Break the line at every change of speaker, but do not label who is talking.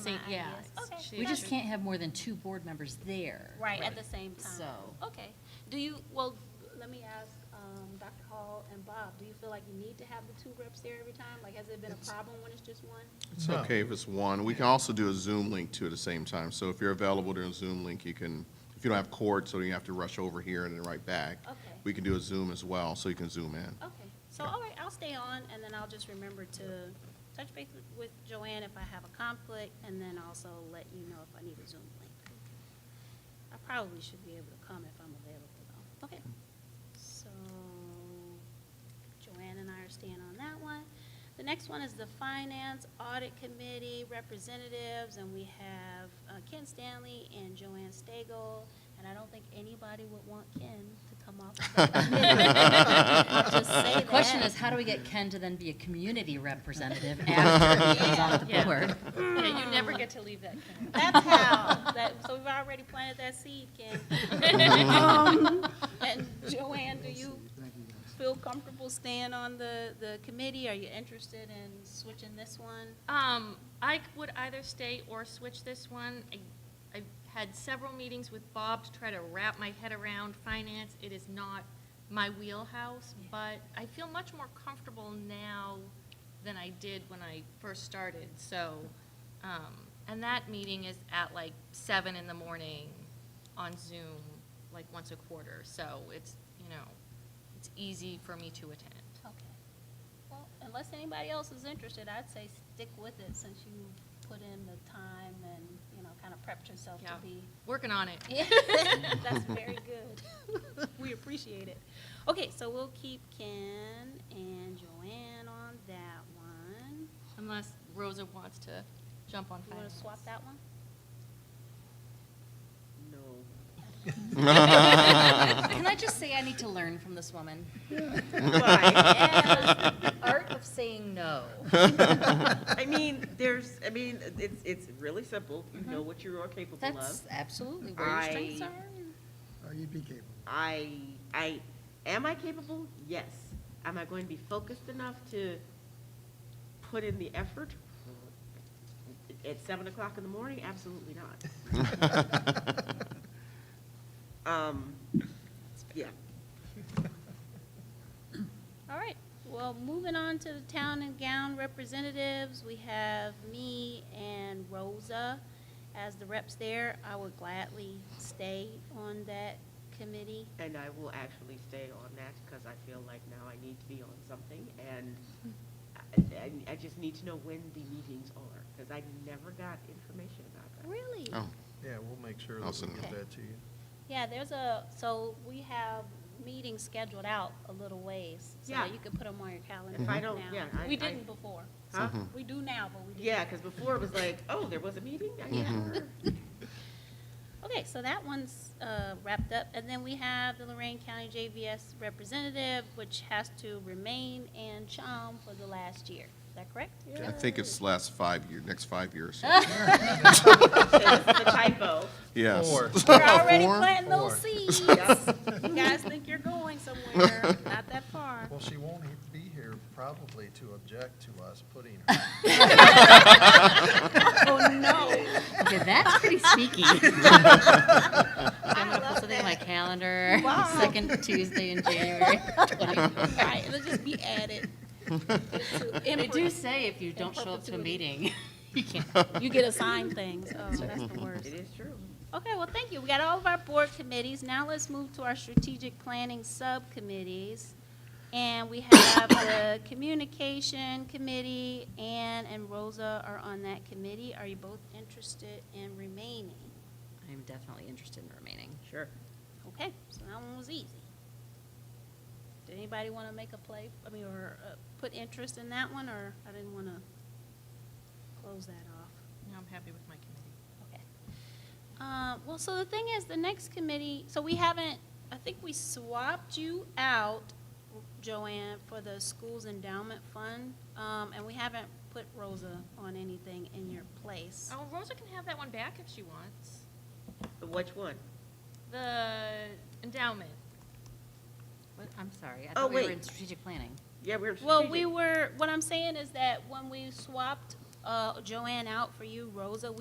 Say,
my
yeah.
ideas.
it's-
Okay,
she-
We just
she-
can't have more than two board members there.
Right, at the same time.
So-
Okay. Do you, well, let me ask, um, Dr. Hall and Bob, do you feel like you need to have the two reps there every time? Like, has it been a problem when it's just one?
It's
No.
okay if it's one. We can also do a Zoom link too at the same time. So if you're available during Zoom link, you can, if you don't have cord, so you have to rush over here and then right back.
Okay.
We can do a Zoom as well, so you can zoom in.
Okay, so, all right, I'll stay on, and then I'll just remember to touch base with- with Joanne if I have a conflict, and then also let you know if I need a Zoom link. I probably should be able to come if I'm available, though. Okay, so Joanne and I are staying on that one. The next one is the Finance Audit Committee representatives, and we have uh, Ken Stanley and Joanne Stagel, and I don't think anybody would want Ken to come off. of that committee. Just say
The question
that.
is, how do we get Ken to then be a community representative after he comes off the
Yeah.
board?
Yeah, you never get to leave that camp.
That's how. That, so we've already planted that seed, Ken. Um, And Joanne, do you
Thank you, guys.
feel comfortable staying on the, the committee? Are you interested in switching this one?
Um, I c- would either stay or switch this one. I, I had several meetings with Bob to try to wrap my head around finance. It is not my wheelhouse, but I feel much more comfortable now than I did when I first started, so, um, and that meeting is at like seven in the morning on Zoom, like once a quarter, so it's, you know, it's easy for me to attend.
Okay. Well, unless anybody else is interested, I'd say stick with it since you put in the time and, you know, kind of prepped yourself to
Yeah.
be
Working on it.
Yeah, that's very good. We appreciate it. Okay, so we'll keep Ken and Joanne on that one.
Unless Rosa wants to jump on
You want
finance.
to swap that one? Hmm.
Can I just say I need to learn from this woman?
Yes.
Art of saying no.
I mean, there's, I mean, it's, it's really simple. You know what you are capable of.
That's absolutely where your strengths
I-
are.
Oh, you'd be capable.
I, I, am I capable? Yes. Am I going to be focused enough to put in the effort? At seven o'clock in the morning? Absolutely not. Um, yeah.
All right, well, moving on to the town and gown representatives, we have me and Rosa as the reps there. I would gladly stay on that committee.
And I will actually stay on that because I feel like now I need to be on something and I, I- I just need to know when the meetings are because I never got information about that.
Really?
Oh,
Yeah, we'll make sure
I'll
that
send
we
it.
get that to you.
Yeah, there's a, so we have meetings scheduled out a little ways, so
Yeah.
you can put them on your calendar
If
now.
I don't- yeah, I-
We
I-
didn't before.
Huh?
We do now, but we didn't.
Yeah, because before it was like, oh, there was a meeting? I never-
Okay, so that one's uh, wrapped up, and then we have the Lorraine County JVS representative, which has to remain and Chom for the last year. Is that correct?
I think it's last five year, next five years.
It's a typo.
Yes.
Four.
We're already
Four?
planting
Four.
those seeds. You guys think you're going somewhere, not that far.
Well, she won't he- be here probably to object to us putting her.
Oh, no.
Okay, that's pretty sneaky. I'm gonna put something in my calendar,
Wow.
second Tuesday in January.
Right, it'll just be added.
They
Introduce.
do say if you don't show up to
perpetuity.
a meeting, you can't.
You get assigned things. Oh, that's the worst.
It is true.
Okay, well, thank you. We got all of our board committees. Now let's move to our strategic planning subcommittees. And we have the communication committee. Ann and Rosa are on that committee. Are you both interested in remaining?
I'm definitely interested in remaining.
Sure.
Okay, so that one was easy. Did anybody want to make a play, I mean, or uh, put interest in that one, or I didn't want to close that off?
No, I'm happy with my committee.
Okay. Uh, Well, so the thing is, the next committee, so we haven't, I think we swapped you out, Joanne, for the Schools Endowment Fund, um, and we haven't put Rosa on anything in your place.
Oh, Rosa can have that one back if she wants.
Which one?
The endowment.
What? I'm sorry, I
Oh,
thought we were
wait.
in strategic planning.
Yeah, we're.
Well, we
strategic.
were, what I'm saying is that when we swapped uh, Joanne out for you, Rosa, we